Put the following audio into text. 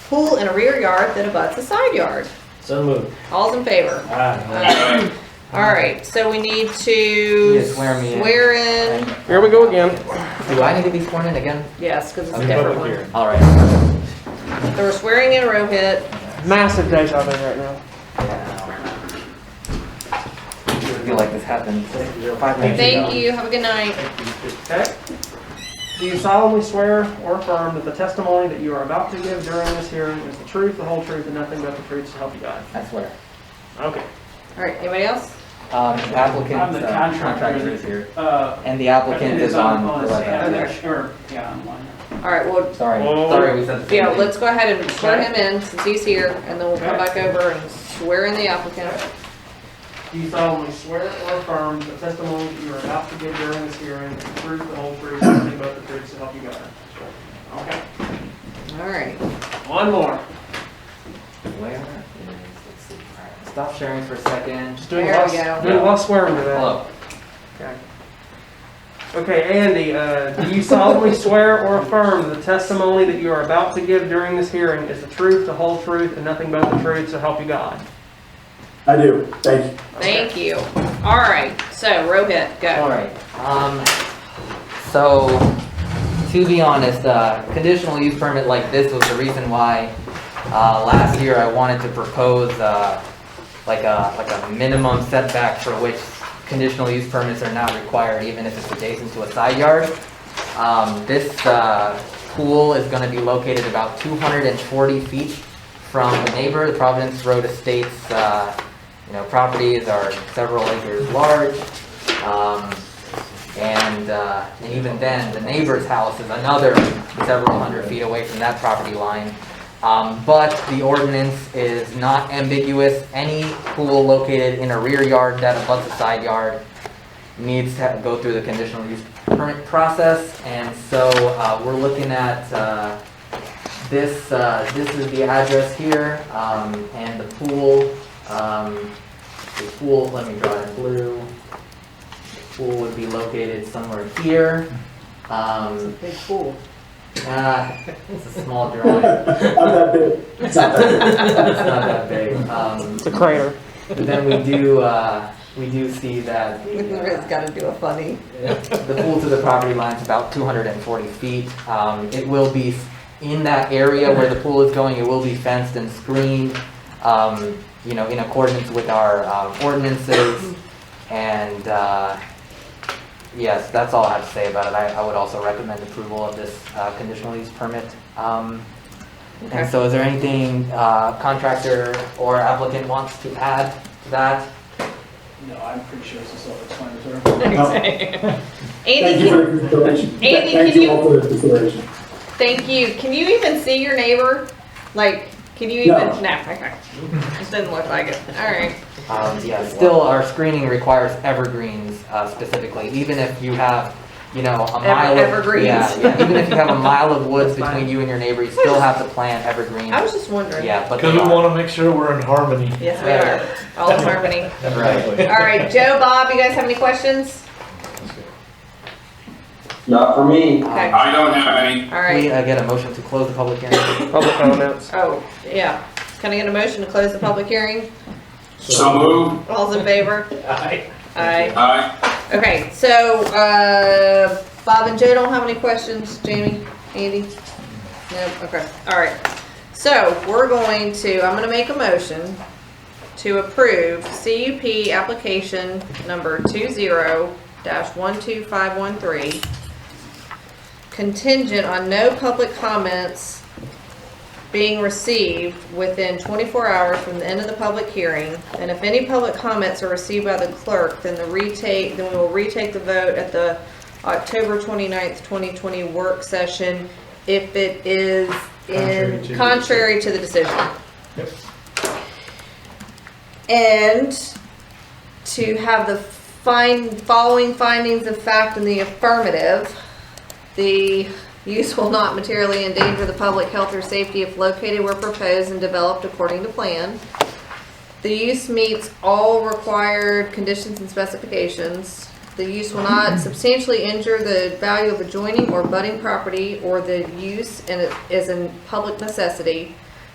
pool in a rear yard that abuts a side yard. So moved. All's in favor? Aye. Uh, All right, so we need You to just swear me in. swear in, Here we go again. Do I need to be sworn in again? yes, because it's a Okay. different Public one. hearing. All right. So we're swearing in Rohit. Massive deja vu right now. I feel like this happened five minutes ago. Thank you, have a good night. Okay. Do you solemnly swear or affirm that the testimony that you are about to give during this hearing is the truth, the whole truth, and nothing but the truth to help you God? I swear. Okay. All right, anybody else? Um, the applicant, I'm the uh, contractor. contractor is here. Uh, And the applicant is on the I'm web. not sure, yeah, I'm on. All right, well, Sorry, Whoa. sorry we said the same yeah, thing. let's go ahead and swear him in since he's here, and then we'll come back over and swear in the applicant. Do you solemnly swear or affirm that the testimony that you are about to give during this hearing is the truth, the whole truth, and nothing but the truth to help you God? Okay. All right. One more. Where is, let's see, all right, stop sharing for a second. Just doing There we less, go. doing less swearing today. Hello. Okay. Okay, Andy, uh, do you solemnly swear or affirm that the testimony that you are about to give during this hearing is the truth, the whole truth, and nothing but the truth, so help you God? I do, thank you. Thank you. All right, so Rohit, All go. right, um, so, to be honest, uh, conditional use permit like this was the reason why, uh, last year I wanted to propose, uh, like a, like a minimum setback for which conditional use permits are not required, even if it's adjacent to a side yard. Um, this, uh, pool is gonna be located about two hundred and forty feet from the neighbor, the Providence Road Estates, uh, you know, properties are several acres large. Um, and, uh, and even then, the neighbor's house is another several hundred feet away from that property line. Um, but the ordinance is not ambiguous. Any pool located in a rear yard that abuts a side yard needs to go through the conditional use permit process. And so, uh, we're looking at, uh, this, uh, this is the address here, um, and the pool, um, the pool, let me draw it in blue. The Pool would be located somewhere here. Um, Big fool. uh, it's a small drawing. It's I'm not big. It's not that not that big. Um, It's a crater. but then we do, uh, we do see that the, uh, It's gotta do a funny. the pool to the property line is about 240 feet. Um, It will be in that area where the pool is going, it will be fenced and screened, um, you know, in accordance with our um, ordinances. And uh, yes, that's all I have to say about it. I I would also recommend approval of this uh, conditional use permit. Um, And so is there anything uh, contractor or applicant wants to add to that? No, I'm pretty sure it's a self-explanatory. Andy, Thank you can- for your consideration. Andy, Thank can you all for the consideration. Thank you. Can you even see your neighbor? Like, can you even? No. okay. It doesn't look like it. All right. Um, yeah, still, our screening requires evergreens uh, specifically, even if you have, you know, a mile of. evergreens. Yeah, yeah, even if you have a mile of woods That's fine. between you and your neighbor, you still have to plant evergreens. I was just wondering. Yeah, but. Because they we are- want to make sure we're in harmony. Yes, we are. All in harmony. Right. All right, Joe, Bob, you guys have any questions? Not for me. Okay. I don't have any. All Can Um, right. we uh, get a motion to close the public hearing? Public comments. Oh, yeah. Can I get a motion to close the public hearing? So moved. All's in favor? Aye. Aye. Okay, so, uh, Bob and Joe don't have any questions, Jamie, Andy? No, okay, all right. So, we're going to, I'm gonna make a motion to approve CUP application number two zero dash one two five one three contingent on no public comments being received within 24 hours from the end of the public hearing. And if any public comments are received by the clerk, then the retake, then we will retake the vote at the October 29th, 2020 work session if it is Contrary to in, the- contrary to the decision. Yep. And to have the find, following findings of fact in the affirmative, the use will not materially endanger the public health or safety if located where proposed and developed according to plan. The use meets all required conditions and specifications. The use will not substantially injure the value of adjoining or budding property or the use and it is in public necessity.